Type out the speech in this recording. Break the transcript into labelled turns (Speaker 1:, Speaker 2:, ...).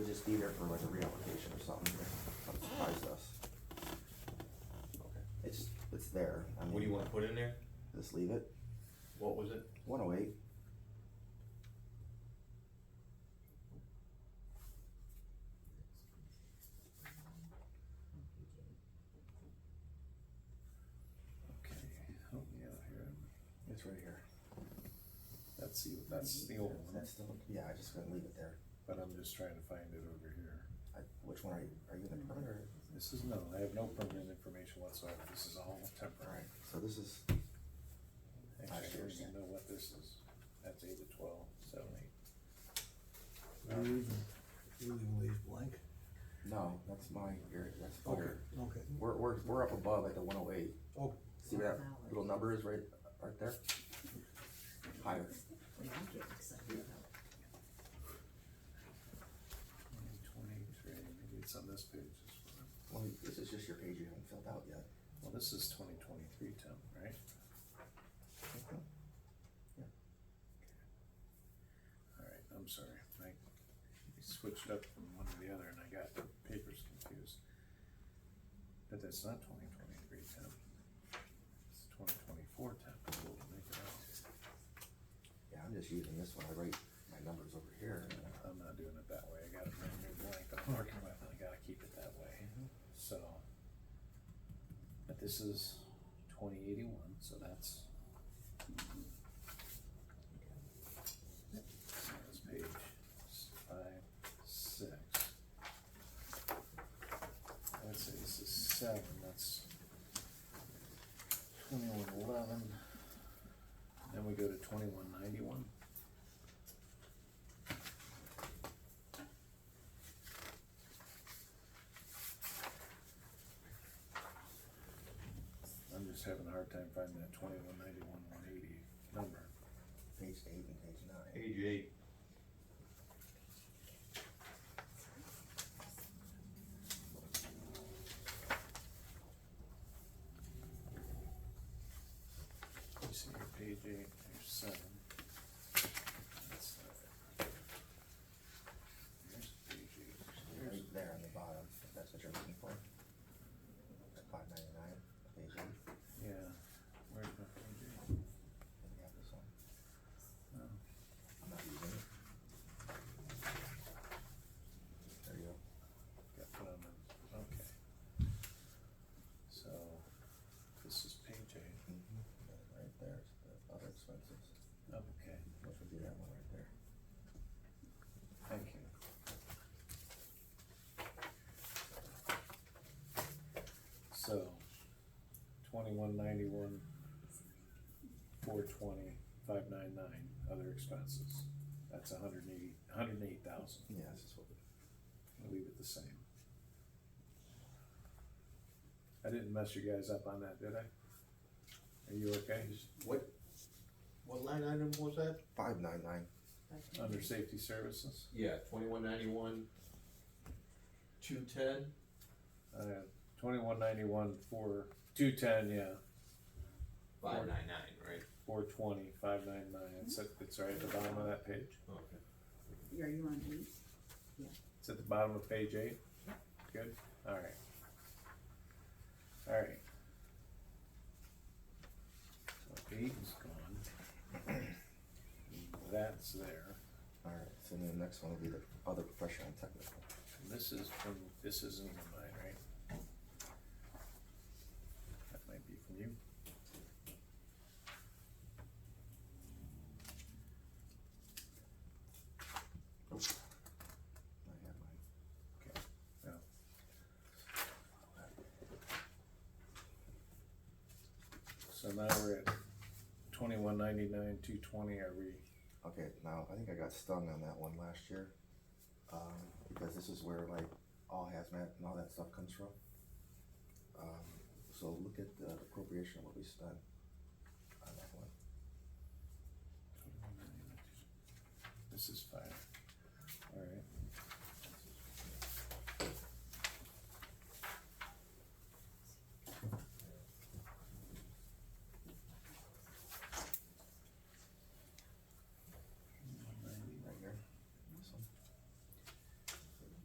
Speaker 1: just be there for like a reallocation or something, that surprised us. It's, it's there. I
Speaker 2: What do you
Speaker 1: mean,
Speaker 2: wanna put in there?
Speaker 1: Just leave it,
Speaker 2: What was it?
Speaker 1: one oh eight.
Speaker 3: Okay, help me out here.
Speaker 1: It's right here.
Speaker 3: That's the, that's the old one,
Speaker 1: That's still, yeah, I just couldn't leave it there.
Speaker 3: but I'm just trying to find it over here.
Speaker 1: I, which one are you, are you in the permit or?
Speaker 3: This is, no, I have no permanent information whatsoever. This is all temporary.
Speaker 1: Alright, so this is,
Speaker 3: Actually, I don't even know what this is. That's eight to twelve, seven, eight.
Speaker 4: leaving, you're leaving these blank?
Speaker 1: no, that's my, area. that's
Speaker 4: Okay,
Speaker 1: fire.
Speaker 4: okay,
Speaker 1: We're, we're, we're up above at the one oh eight.
Speaker 4: oh,
Speaker 1: See where that little number is right, right there? Higher.
Speaker 5: Well, I'm getting excited about it.
Speaker 3: Twenty-three, maybe it's on this page. this one.
Speaker 1: Well, this is just your page you haven't filled out yet.
Speaker 3: Well, this is twenty twenty-three, Tim, right? All right, I'm sorry, I switched up from one to the other and I got the papers confused. But that's not twenty twenty-three temp. It's twenty twenty-four temp, we'll make it out.
Speaker 1: Yeah, I'm just using this one. I write my numbers over here.
Speaker 3: I'm not doing it that way, I got a brand new blank I'm working with, and I gotta keep it that way, so. But this is twenty eighty-one, so that's. So That's page s- five, six. I would say this is seven, that's twenty-one eleven. Then we go to twenty-one ninety-one. I'm just having a hard time finding that twenty-one ninety-one, one eighty number.
Speaker 1: Page eight and page nine.
Speaker 2: Page eight.
Speaker 3: You see here, page eight, page seven. That's not it. Here's page eight, here's,
Speaker 1: Right there on the bottom, if that's what you're looking for. Five ninety-nine, page eight.
Speaker 3: yeah, where's my page eight? Oh,
Speaker 1: And you have this one.
Speaker 3: No,
Speaker 1: I'm not using it. There you go.
Speaker 3: got put on the, okay. So, this is page eight,
Speaker 1: And Mm-hmm. Right there is the other expenses,
Speaker 3: okay,
Speaker 1: which would be that one right there.
Speaker 3: thank you. So, twenty-one ninety-one, four twenty, five nine nine, other expenses. That's a hundred and eighty, hundred and eight thousand,
Speaker 1: Yeah, this is what, we-
Speaker 3: leave it the same. I didn't mess you guys up on that, did I? Are you okay?
Speaker 2: What, what line item was that?
Speaker 1: five nine nine.
Speaker 3: Under safety services,
Speaker 2: Yeah, twenty-one ninety-one, two ten.
Speaker 3: uh, twenty-one ninety-one, four, two ten, yeah,
Speaker 2: Five nine nine, right?
Speaker 3: four twenty, five nine nine, it's, at- it's right at the bottom of that page.
Speaker 2: Okay.
Speaker 5: Are you on eight?
Speaker 3: It's at the bottom of page eight? Good, alright. Alright. So eight is gone. That's there,
Speaker 1: All right, so then the next one will be the other professional and technical.
Speaker 3: And this is from, this isn't even mine, right? That might be from you.
Speaker 1: I have mine.
Speaker 3: Okay, no. So now we're at twenty-one ninety-nine, two twenty, are we,
Speaker 1: Okay, now, I think I got stung on that one last year, um, because this is where like all hazmat and all that stuff comes from. Um, so look at the appropriation of what we spent on that one.
Speaker 3: This is fire, alright.